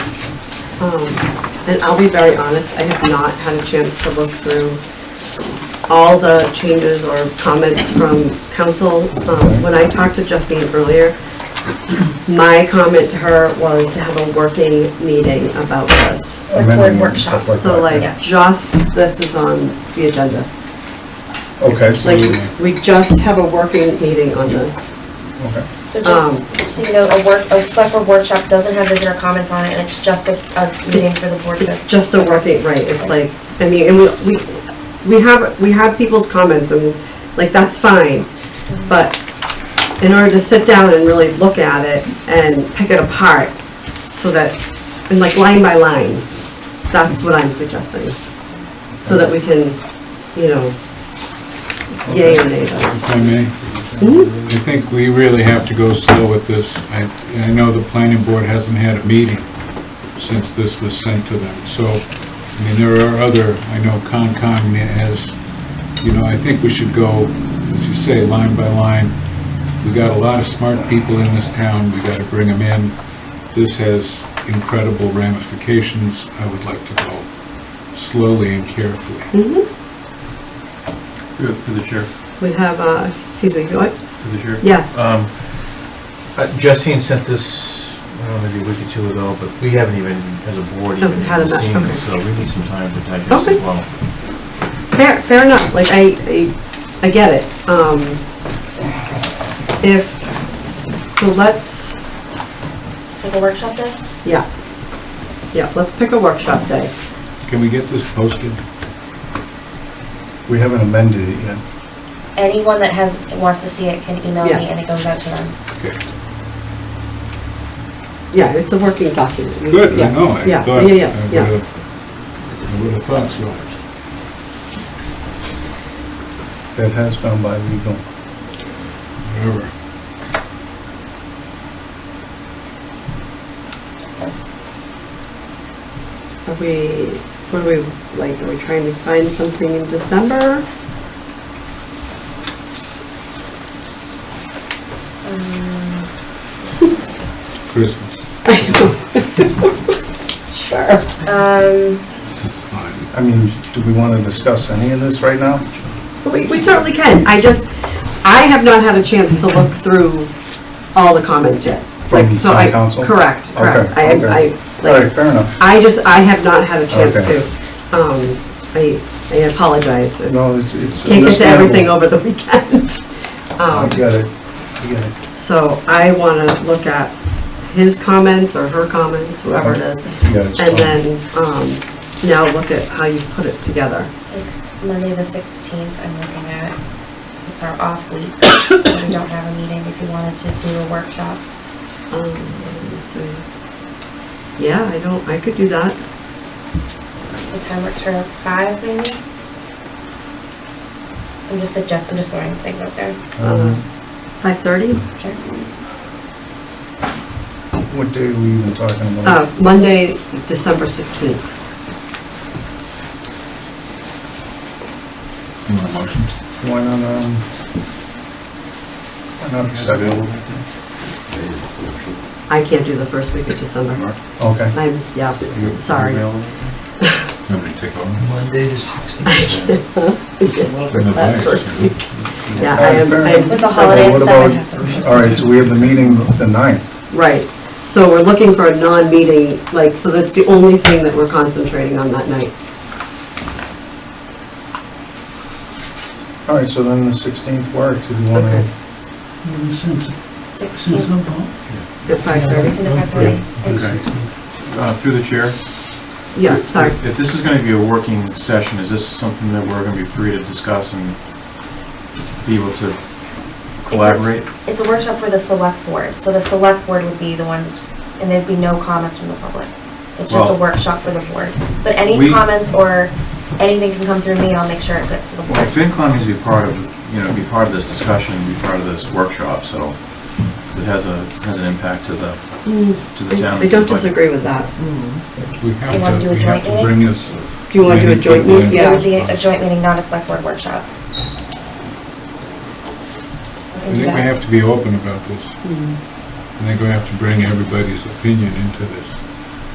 Um, And I'll be very honest, I have not had a chance to look through all the changes or comments from council. Um, When I talked to Justine earlier, my comment to her was to have a working meeting about this. Select board Amendments, workshop. stuff So that. like, just, this is on the agenda. Okay, so, Like, you- we just have a working meeting on this. okay. So just, Um, so you know, a work, a select board workshop doesn't have visitor comments on it, and it's just a, a meeting for the board It's to. just a working, right, it's like, I mean, and we, we, we have, we have people's comments and, like, that's fine. But in order to sit down and really look at it and pick it apart so that, and like line by line, that's what I'm suggesting. So that we can, you know, yay or nay those. If I may, I think we really have to go slow with this. I, I know the planning board hasn't had a meeting since this was sent to them, so, I mean, there are other, I know Concom has, you know, I think we should go, as you say, line by line. We got a lot of smart people in this town, we gotta bring them in. This has incredible ramifications, I would like to go slowly and carefully. Through through the chair, We have, uh, excuse me, what? through the chair. Yes, Um, uh, Justine sent this, I don't know, maybe a week or two ago, but we haven't even, as a board, Oh, even had enough, seen this, so okay. we need some time to digest Okay. as well. fair, fair enough, like, I, I, I get it. Um, if, so let's, For the workshop day? yeah, yeah, let's pick a workshop day. Can we get this posted? We haven't amended it yet. Anyone that has, wants to see it can email Yeah. me, and it goes out to them. Okay. Yeah, it's a working document. We- Good, yeah, I know, I Yeah, thought. yeah, I yeah, yeah. would've- I would have thought so. That has gone by legal. Whatever. Are we, what are we, like, are we trying to find something in December? Um, Christmas. I don't. Sure. Um, Fine. I mean, do we want to discuss any of this right now? We we certainly can. I just, I have not had a chance to look through all the comments yet. Like, From so town I- council? Correct, correct. Okay, I, okay. I, All right, like, fair enough. I just, I have not had a chance Okay. to. Um, I, I apologize. No, it's, it's. Can't get to understandable. everything over the weekend. I Um, get it, I get it. So I want to look at his comments or her comments, whoever it is, Yeah, it's and fine. then um, now look at how you put it together. like Monday the sixteenth, I'm looking at, it's our off week, we don't have a meeting if you wanted to do a workshop. Um, so, Yeah, I don't, I could do that. What time works for five, maybe? I'm just suggest, I'm just throwing things out there. Uh, Um, mm-hmm. 5:30? Sure. What day are we even talking about? Uh, Monday, December 16th. You want a motion? Why not, um, why not the second? I can't do the first week of December. Okay. I'm, yeah, sorry. Nobody take over? Monday the I 16th. can't do No, that thanks. first week. Yeah, I That's am, fair. I'm With the holiday at what seven. about- half All right, so we have the meeting the ninth. Right, so we're looking for a non-meeting, like, so that's the only thing that we're concentrating on that night. All right, so then the sixteenth works if you want Okay. to. Since, since Sixteen, I'm home. At five sixteen thirty? to five thirty. Okay. Uh, Through the chair. Yeah, sorry. If this is going to be a working session, is this something that we're going to be free to discuss and be able to collaborate? It's a workshop for the select board, so the select board would be the ones, and there'd be no comments from the public. It's just a Well- workshop for the board, but any We- comments or anything can come through me, and I'll make sure it gets to the Well, board. FinCom needs to be part of, you know, be part of this discussion, be part of this workshop, so it has a, has an impact to the, to the town. Mm, I don't disagree with that. We you wanna have do to, we have a joint to meeting? bring this. Do you want to do a joint meeting? It would Yeah. be a joint meeting, not a select board workshop. We I can do think we that. have to be open about this. I think we have to bring everybody's opinion into this.